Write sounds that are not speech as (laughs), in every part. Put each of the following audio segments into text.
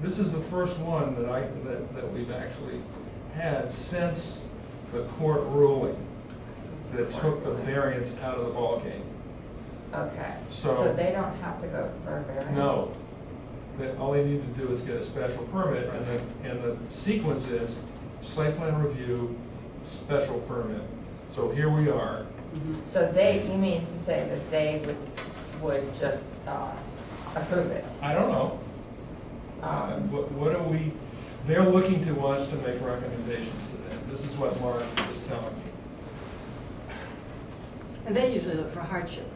This is the first one that I, that, that we've actually had since the court ruling that took the variance out of the ballgame. Okay. So- they don't have to go for a variance? No, that all they need to do is get a special permit, and the, and the sequence is site plan review, special permit. So here we are, So they, you mean to say that they would, would just uh, approve it? I don't know, Uh, Um, What, what are we, they're looking to us to make recommendations to them. This is what Mark was telling me. And they usually look for hardship,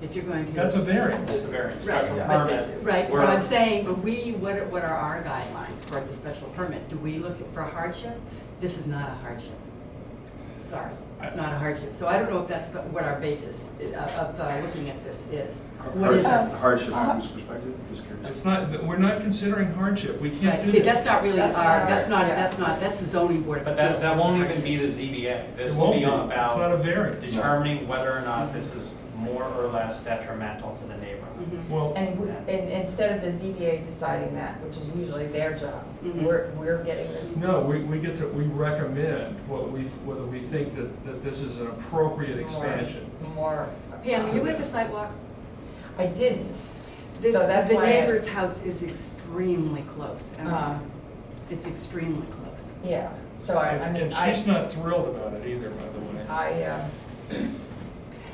if you're going to. That's a variance. It's a variance, Right, special but- permit. Right, We're- but I'm saying, but we, what, are- what are our guidelines for the special permit? Do we look for hardship? This is not a hardship. Sorry, it's not a hardship. So I don't know if that's the- what our basis i- of, of uh, looking at this is. What is Uh-huh. it? Hardship hardship from whose perspective? Just curious. It's not, we're not considering hardship. We can't Right, do see, that. that's not really our, That's not our- that's not, yeah. that's not, that's the zoning board. of But that, appeals. that won't even be the ZBA. This It will won't be It's not a about variance. determining whether or not this is more or less detrimental to the neighborhood. Mhm. Well, And, we- and instead of the ZBA deciding that, which is usually their job, Mhm. we're, we're getting this. no, we, we get to, we recommend what we, whether we think that, that this is an appropriate more- expansion. More. Pam, you at the sidewalk? I didn't. This, So that's the why I- neighbor's house is extremely close. I mean, Um, It's extremely close. Yeah, so I, I And- mean, And she's I, not thrilled about it either, by the way. I, uh,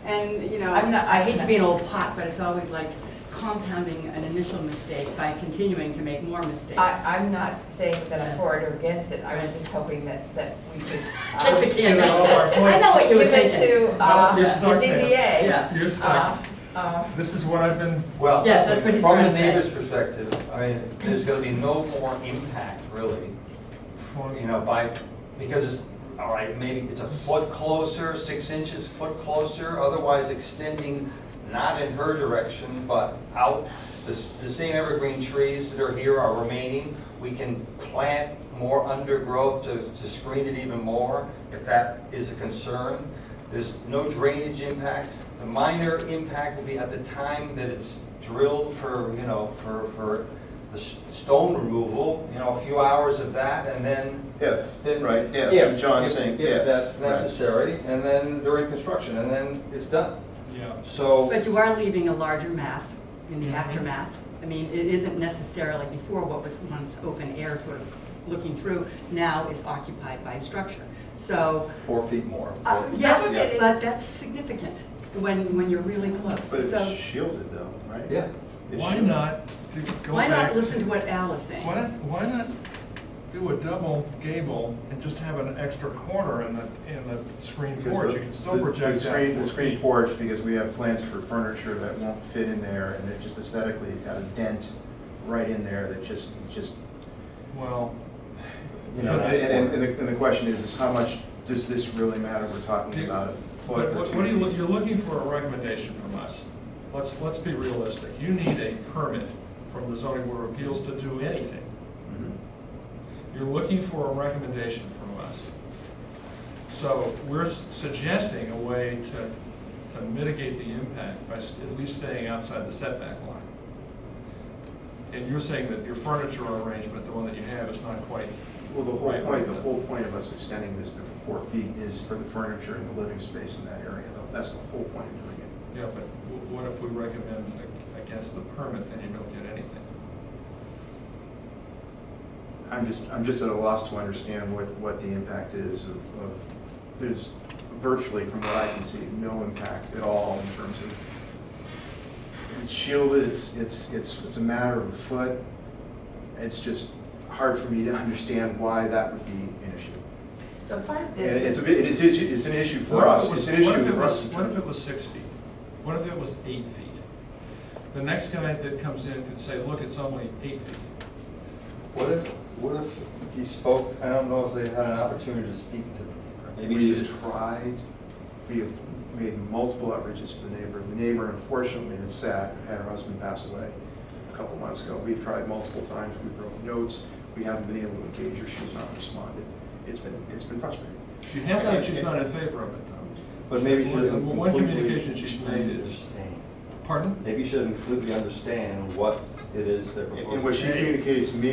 And, you know, I'm not- I hate to be an old pot, but it's always like compounding an initial mistake by continuing to make more mistakes. I, I'm not saying that I'm for it or against it, I was just hoping that, that we could. Kick the um, can Give it all (laughs) our out. I know what you were Give it thinking. to, uh, No, the you're stuck there. ZBA. Yeah. You're Uh, stuck. uh, This is what I've been, Well, Yes, that's what he's from trying the to say. neighbor's perspective, I mean, there's gonna be no more impact, really, you know, by, because it's, all right, maybe it's a foot closer, six inches, foot closer, otherwise extending not in her direction, but out. The, s- the same evergreen trees that are here are remaining. We can plant more undergrowth to, to screen it even more, if that is a concern. There's no drainage impact. The minor impact will be at the time that it's drilled for, you know, for, for the s- stone removal, you know, a few hours of that, and then If, then- right, if, if- John's if- saying if. If that's right. necessary, and then during construction, and then it's done. yeah. So, But you are leaving a larger mass in the Mhm. aftermath. I mean, it isn't necessarily before what was once open air, sort of looking through, now is occupied by structure. So, four feet more. uh, four feet. yes, of it is- but that's significant when, when you're really close. But So it's shielded though, right? Yeah. It's Why shielded. not to go why back not listen to what Al is saying? Why not, why not do a double gable and just have an extra corner in the, in the screen Because porch? the- You can still the- project that. The screen, four the screen feet. porch, because we have plans for furniture that won't fit in there, and it just aesthetically got a dent right in there that just, just, Well, you know, But and, they- and- and the, and the question is, is how much does this really matter? We're talking you- about a foot what- or what two what are you, feet. you're looking for a recommendation from us. Let's, let's be realistic. You need a permit from the zoning board of appeals to do anything. Mhm. You're looking for a recommendation from us. So we're s- suggesting a way to, to mitigate the impact by s- at least staying outside the setback line. And you're saying that your furniture arrangement, the one that you have, is not quite, Well, the whole Right. point, the whole point of us extending this to four feet is for the furniture and the living space in that area, though. That's the whole point of doing it. yeah, but w- what if we recommend a- against the permit, then you don't get anything? I'm just, I'm just at a loss to understand what, what the impact is of, of, there's virtually, from what I can see, no impact at all in terms of, it's shielded, it's, it's, it's, it's a matter of a foot. It's just hard for me to understand why that would be an issue. So part of And this. it's, is- a bit- it is, issue- it's an issue What for if us, it was- it's an what if issue it for us. was- What if it was six feet? What if it was eight feet? The next guy that comes in can say, look, it's only eight feet. What if, what if he spoke, I don't know if they had an opportunity to speak to, maybe she We've just. tried, we have made multiple outreaches to the neighbor. The neighbor unfortunately is sad, had her husband pass away a couple months ago. We've tried multiple times, we've wrote notes, we haven't been able to engage her, she's not responded. It's been, it's been frustrating. She has said she's not in favor of it, though. But maybe she One- doesn't one completely. communication she's made is- understand. Pardon? Maybe she doesn't completely understand what it is they're And proposing. and what she communicated to me